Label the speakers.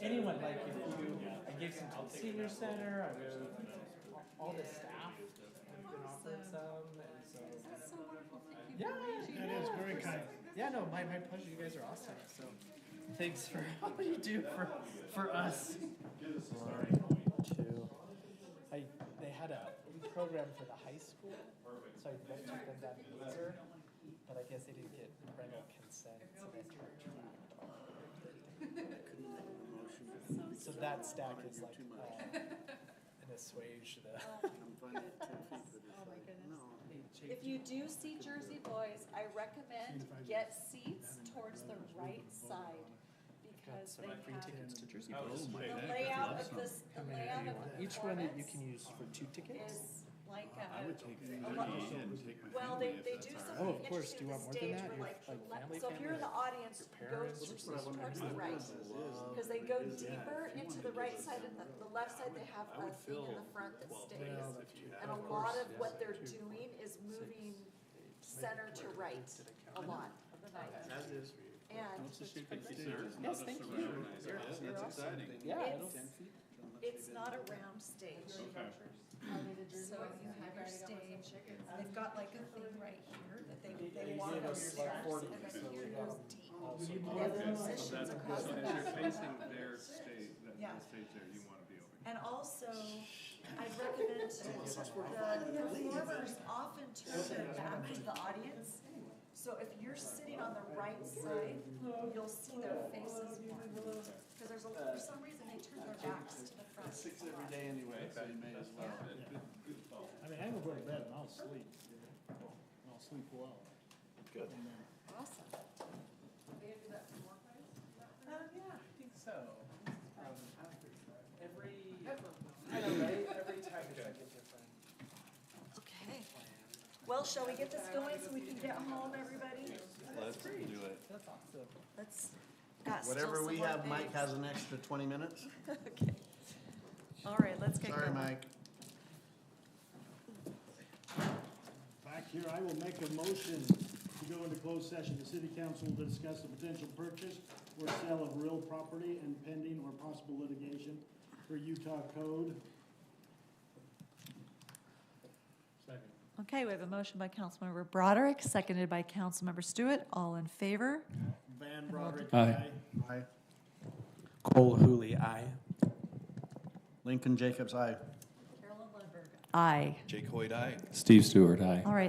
Speaker 1: anyone, like, if you, I gave some to the senior center, I gave all the staff, have been offered some, and so.
Speaker 2: That's so wonderful, thank you.
Speaker 1: Yeah,
Speaker 3: That is very kind.
Speaker 1: yeah, no, my, my pleasure, you guys are awesome, so, thanks for all you do for, for us. Two. I, they had a program for the high school, so I bet took them that year, but I guess they didn't get parental consent, so that's retracted. So that stack is like, uh, an assuage the.
Speaker 2: Oh my goodness. If you do see Jersey Boys, I recommend get seats towards the right side because they have,
Speaker 4: to Jersey
Speaker 2: the layout of this, the layout of the
Speaker 1: Each one that you
Speaker 2: performance
Speaker 1: can use for two tickets?
Speaker 2: is like
Speaker 4: I
Speaker 2: a,
Speaker 4: would take thirty and take my
Speaker 2: well, they,
Speaker 4: family if
Speaker 2: they
Speaker 4: that's
Speaker 2: do
Speaker 4: all
Speaker 2: something
Speaker 1: Oh,
Speaker 4: right.
Speaker 1: of course. Do you
Speaker 2: interesting
Speaker 1: want
Speaker 2: with the
Speaker 1: more than that? Your, like, family,
Speaker 2: stage where like, the le- so if you're in the
Speaker 1: family,
Speaker 2: audience, go
Speaker 1: parents,
Speaker 2: towards
Speaker 1: or something?
Speaker 2: towards the right. Because they go deeper into the right side and the, the left side, they have a thing in the front that stays.
Speaker 1: Well,
Speaker 2: And a lot of what they're doing is moving center to right a lot of the night. And
Speaker 4: What's the shape of the stage?
Speaker 1: Yes, thank you.
Speaker 4: Yeah, that's exciting.
Speaker 1: Yeah, it'll,
Speaker 2: it's, it's not a round stage. So you have your stage, they've got like a thing right here that they, they walk
Speaker 1: gave
Speaker 2: on
Speaker 1: us
Speaker 2: your
Speaker 1: like
Speaker 2: steps
Speaker 1: 40,
Speaker 2: and
Speaker 1: so
Speaker 2: then
Speaker 1: we
Speaker 2: here
Speaker 1: got
Speaker 2: goes
Speaker 1: them
Speaker 2: deep.
Speaker 1: also.
Speaker 2: And then
Speaker 4: Okay.
Speaker 2: musicians
Speaker 4: So that-
Speaker 2: across the
Speaker 4: since you're
Speaker 2: back.
Speaker 4: facing their stage, that,
Speaker 2: Yeah.
Speaker 4: that stage there, you wanna be over.
Speaker 2: And also, I'd recommend the performers often turn their back to the audience. So if you're sitting on the right side, you'll see their faces more. Because there's, a- for some reason, they turn their backs to the front. a lot.
Speaker 4: anyway, so you may as well.
Speaker 3: I mean, I will go to bed and I'll sleep. And I'll sleep well.
Speaker 4: Good.
Speaker 2: Awesome.
Speaker 1: Um, yeah, I think so. Um, Every, I know, right, every time it's like a different
Speaker 2: Okay.
Speaker 1: plan.
Speaker 2: Well, shall we get this going so we can get home, everybody?
Speaker 4: Let's do it.
Speaker 1: That's awesome.
Speaker 2: Let's, got still
Speaker 5: Whatever
Speaker 2: some
Speaker 5: we
Speaker 2: more
Speaker 5: have, Mike
Speaker 2: things.
Speaker 5: has an extra twenty minutes.
Speaker 2: Okay. All right, let's get
Speaker 5: Sorry,
Speaker 2: going.
Speaker 5: Mike.
Speaker 3: Back here, I will make a motion to go into closed session. The city council will discuss the potential purchase or sale of real property and pending or possible litigation for Utah code. Second.
Speaker 2: Okay, we have a motion by Councilmember Broderick, seconded by Councilmember Stewart. All in favor?
Speaker 3: Van Broderick, aye.
Speaker 5: Aye.
Speaker 6: Cole Hooley, aye.
Speaker 5: Lincoln Jacobs, aye.
Speaker 2: Aye.
Speaker 4: Jake Hoyt, aye.
Speaker 6: Steve Stewart, aye.
Speaker 2: All right,